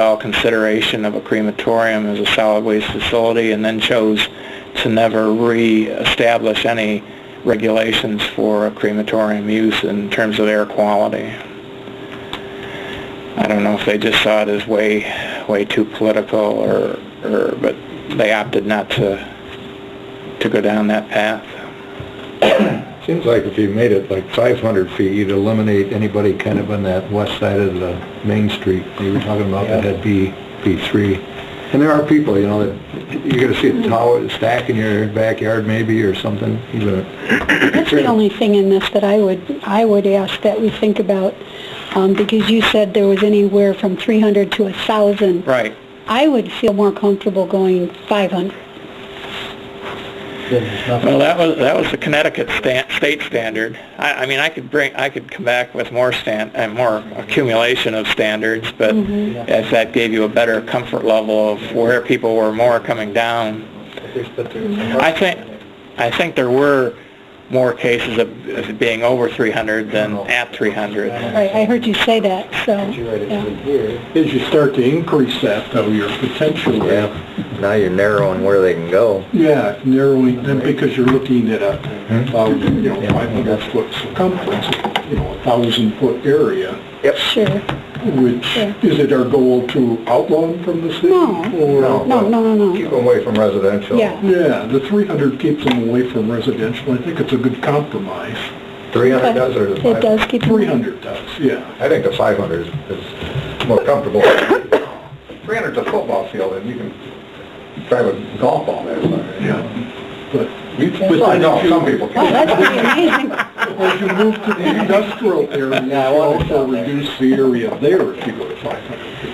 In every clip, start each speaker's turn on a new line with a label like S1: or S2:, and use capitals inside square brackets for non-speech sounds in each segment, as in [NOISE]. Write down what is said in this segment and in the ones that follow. S1: all consideration of a crematorium as a solid waste facility and then chose to never reestablish any regulations for a crematorium use in terms of air quality. I don't know if they just saw it as way, way too political or, or, but they opted not to, to go down that path.
S2: Seems like if you made it like 500 feet, you'd eliminate anybody kind of on that west side of the main street that you were talking about that had B, B3. And there are people, you know, that you're gonna see a tower, stack in your backyard maybe or something, even a...
S3: That's the only thing in this that I would, I would ask that we think about, um, because you said there was anywhere from 300 to 1,000.
S1: Right.
S3: I would feel more comfortable going 500.
S1: Well, that was, that was the Connecticut stan, state standard. I, I mean, I could bring, I could come back with more stan, and more accumulation of standards, but if that gave you a better comfort level of where people were more coming down. I think, I think there were more cases of, of being over 300 than at 300.
S3: Right, I heard you say that, so, yeah.
S4: As you start to increase that, though, your potential,
S2: now you're narrowing where they can go.
S4: yeah, narrowing, then because you're looking at a, thousand, uh, you know, 500 foot circumference, you know, a 1,000 foot area,
S3: sure.
S4: which,
S3: Yeah.
S4: is it our goal to outlaw them from the city?
S3: No.
S4: Or,
S3: No, no, no, no,
S2: away from residential.
S3: yeah.
S4: yeah, the 300 keeps them away from residential, I think it's a good compromise.
S2: 300
S3: It does keep...
S4: 300 does, yeah.
S2: I think the 500 is, is more comfortable. 300's a football field, and you can drive a golf ball there.
S4: Yeah, but
S2: You can't,
S4: Well, I know,
S2: some people
S3: Wow, that's pretty amazing. [LAUGHS]
S4: as you move to the industrial area, you also reduce the area there if you go to 500 feet.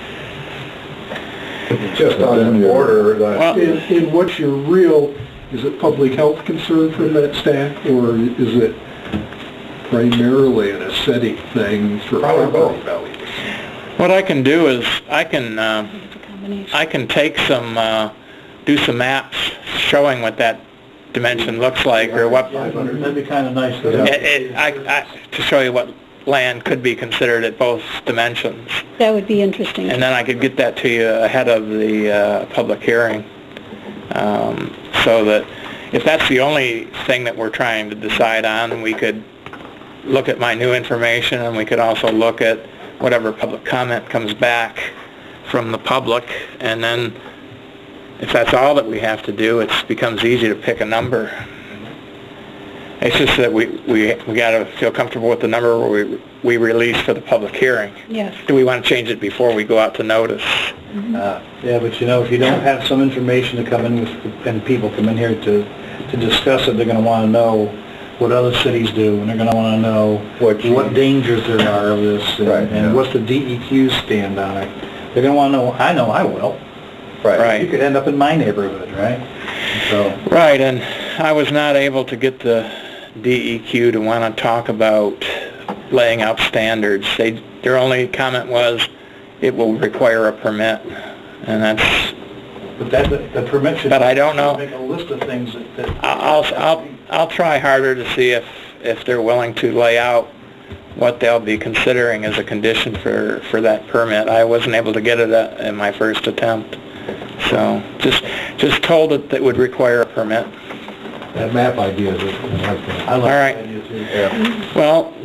S2: Just on the border, the...
S1: Well,
S4: And, and what's your real, is it public health concern from that stack, or is it primarily an aesthetic thing for
S2: Probably
S4: property
S2: both.
S4: values?
S1: what I can do is, I can, uh, I can take some, uh, do some maps showing what that dimension looks like or what,
S4: That'd be kind of nice.
S1: It- it- I- I- To show you what land could be considered at both dimensions.
S3: That would be interesting.
S1: And then I could get that to you ahead of the uh, public hearing. Um, So that if that's the only thing that we're trying to decide on, we could look at my new information and we could also look at whatever public comment comes back from the public. And then if that's all that we have to do, it becomes easy to pick a number. It's just that we, we, we gotta feel comfortable with the number we, we release for the public hearing.
S3: Yes.
S1: Do we want to change it before we go out to notice?
S5: Uh, Yeah, but you know, if you don't have some information to come in with, and people come in here to, to discuss it, they're gonna wanna know what other cities do, and they're gonna wanna know
S2: What you-
S5: what dangers there are of this, and-
S2: Right, yeah.
S5: and what's the DEQ stand on it. They're gonna wanna know, I know I will.
S1: Right.
S5: You could end up in my neighborhood, right? So,
S1: Right, and I was not able to get the DEQ to want to talk about laying out standards. They, their only comment was, it will require a permit, and that's,
S5: but that, the permit should.
S1: But I don't know.
S5: Make a list of things that, that.
S1: I'll, I'll, I'll try harder to see if, if they're willing to lay out what they'll be considering as a condition for, for that permit. I wasn't able to get it uh, in my first attempt, so just, just told it that would require a permit.
S2: That map idea is, I like that.
S5: I like
S1: All right.
S5: that idea too.
S2: Yeah.
S1: Well,